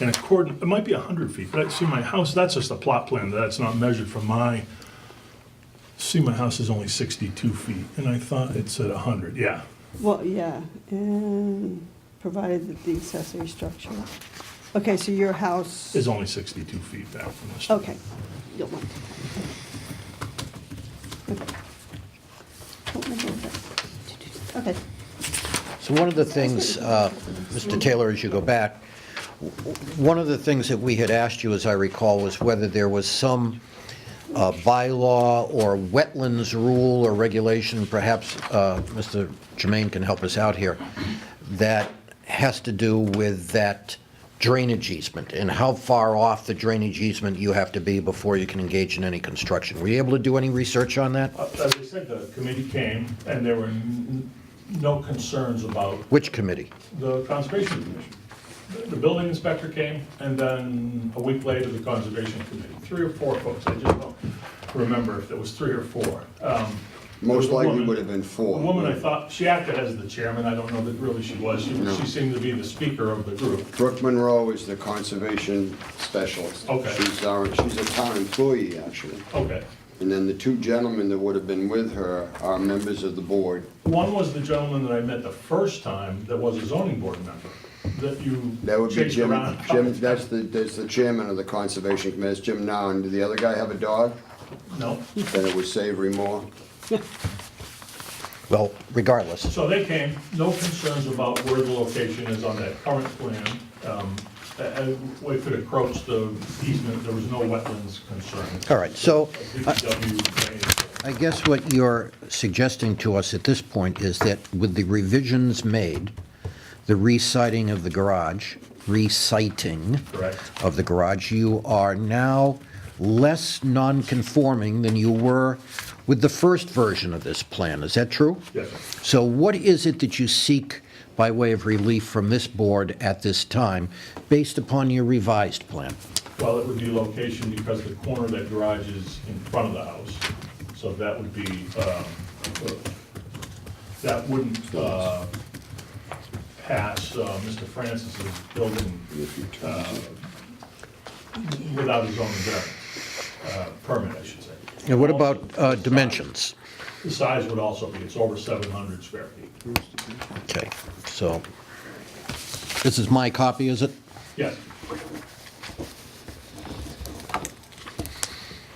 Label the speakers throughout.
Speaker 1: in accord, it might be 100 feet, but I see my house, that's just a plot plan, that's not measured from my, see, my house is only 62 feet, and I thought it said 100, yeah.
Speaker 2: Well, yeah, and provided that the accessory structure. Okay, so your house,
Speaker 1: It's only 62 feet back from the street.
Speaker 2: okay, you'll want. Okay,
Speaker 3: So one of the things, uh, Mr. Taylor, as you go back, w- one of the things that we had asked you, as I recall, was whether there was some uh, bylaw or wetlands rule or regulation, perhaps uh, Mr. Jermaine can help us out here, that has to do with that drainage easement and how far off the drainage easement you have to be before you can engage in any construction. Were you able to do any research on that?
Speaker 1: Uh, As I said, the committee came, and there were n- no concerns about
Speaker 3: Which committee?
Speaker 1: the Conservation Commission. The- The building inspector came, and then a week later, the Conservation Committee. Three or four folks, I just don't remember if there was three or four. Um, there was
Speaker 4: Most
Speaker 1: a
Speaker 4: likely
Speaker 1: woman-
Speaker 4: would have been four.
Speaker 1: A woman I thought, she acted as the chairman, I don't know that really she was. She
Speaker 4: No.
Speaker 1: she seemed to be the speaker of the group.
Speaker 4: Brooke Monroe is the conservation specialist.
Speaker 1: Okay.
Speaker 4: She's our, she's a town employee, actually.
Speaker 1: Okay.
Speaker 4: And then the two gentlemen that would have been with her are members of the board.
Speaker 1: One was the gentleman that I met the first time that was a zoning board member, that you
Speaker 4: That would be
Speaker 1: chased
Speaker 4: Jim,
Speaker 1: around.
Speaker 4: Jim, that's the, that's the chairman of the conservation committee, It's Jim Noun. Did the other guy have a dog?
Speaker 1: No.
Speaker 4: Then it was Savory Moore.
Speaker 3: Well, regardless.
Speaker 1: So they came, no concerns about where the location is on that current plan. Um, a- And we could approach the easement, there was no wetlands concern.
Speaker 3: All right, so I-
Speaker 1: DPW drainage.
Speaker 3: I guess what you're suggesting to us at this point is that with the revisions made, the reciting of the garage, reciting
Speaker 1: Correct.
Speaker 3: of the garage, you are now less non-conforming than you were with the first version of this plan. Is that true?
Speaker 1: Yes, sir.
Speaker 3: So what is it that you seek by way of relief from this board at this time, based upon your revised plan?
Speaker 1: Well, it would be location because the corner of that garage is in front of the house. So that would be, um, that wouldn't uh, pass uh, Mr. Francis's building uh, without his own variance, uh, permit, I should say.
Speaker 3: And what about uh, dimensions?
Speaker 1: The size would also be, it's over 700 square feet.
Speaker 3: Okay, so, this is my copy, is it?
Speaker 1: Yes,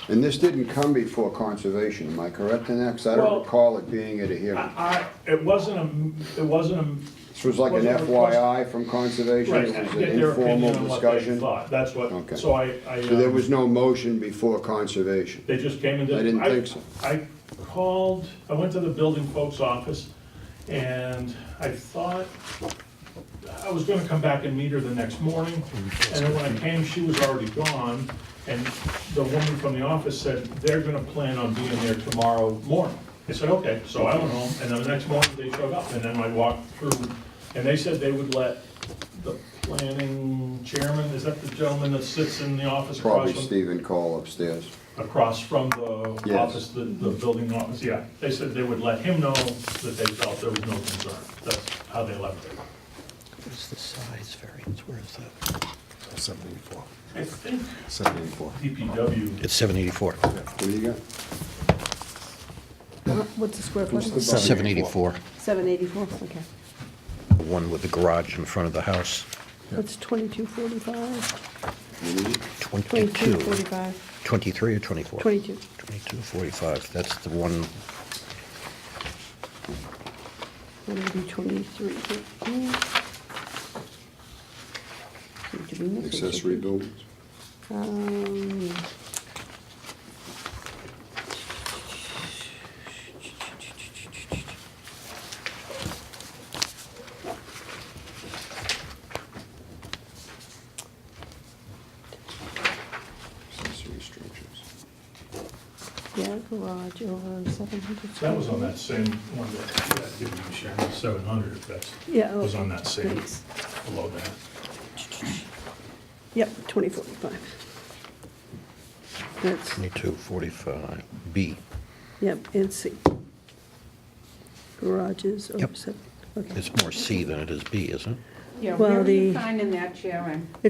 Speaker 4: And this didn't come before conservation, am I correct in that? 'Cause I
Speaker 1: Well-
Speaker 4: don't recall it being at a hearing.
Speaker 1: I, I- it wasn't a, it wasn't a
Speaker 4: This was like an
Speaker 1: Wasn't a request.
Speaker 4: FYI from conservation,
Speaker 1: Right,
Speaker 4: it
Speaker 1: get
Speaker 4: was an
Speaker 1: their
Speaker 4: informal
Speaker 1: opinion on what they
Speaker 4: discussion.
Speaker 1: thought, that's
Speaker 4: Okay.
Speaker 1: what, so I, I.
Speaker 4: So there
Speaker 1: um,
Speaker 4: was no motion before conservation.
Speaker 1: They just came and did.
Speaker 4: I didn't think so.
Speaker 1: I called, I went to the building folks' office, and I thought, I was gonna come back and meet her the next morning, and then when I came, she was already gone, and the woman from the office said, they're gonna plan on being there tomorrow morning. I said, okay, so I went home, and then the next morning, they showed up, and then I walked through, and they said they would let the planning chairman, is that the gentleman that sits in the office across
Speaker 4: Probably
Speaker 1: from?
Speaker 4: Stephen Call upstairs.
Speaker 1: across from the
Speaker 4: Yes.
Speaker 1: office, the, the building office, yeah. They said they would let him know that they felt there was no concern. That's how they left it.
Speaker 3: What's the size variance, where is that?
Speaker 5: 784,
Speaker 1: I think
Speaker 5: 784.
Speaker 1: DPW,
Speaker 3: It's 784.
Speaker 4: What do you got?
Speaker 2: Uh, what's the square
Speaker 4: What's
Speaker 2: footage?
Speaker 4: the-
Speaker 3: 784,
Speaker 2: Seven eighty-four, okay.
Speaker 3: the one with the garage in front of the house,
Speaker 2: That's twenty-two forty-five,
Speaker 3: 22,
Speaker 2: twenty-two forty-five,
Speaker 3: 23 or 24?
Speaker 2: twenty-two.
Speaker 3: 2245, that's the one,
Speaker 2: Maybe twenty-three. fifteen. So do we miss it?
Speaker 4: Accessory buildings.
Speaker 2: Um,
Speaker 4: Accessory structures.
Speaker 2: yeah, garage over seven hundred.
Speaker 1: that was on that same one that, that did we share, seven hundred, if that's,
Speaker 2: Yeah. oh,
Speaker 1: was on that same,
Speaker 2: thanks.
Speaker 1: below that.
Speaker 2: Yep, twenty forty-five. That's,
Speaker 3: 2245B.
Speaker 2: yep, and C. Garages over
Speaker 3: Yep.
Speaker 2: seven, okay.
Speaker 3: It's more C than it is B, isn't it?
Speaker 6: Yeah,
Speaker 2: Well,
Speaker 6: where are you
Speaker 2: the-
Speaker 6: finding that, Sharon?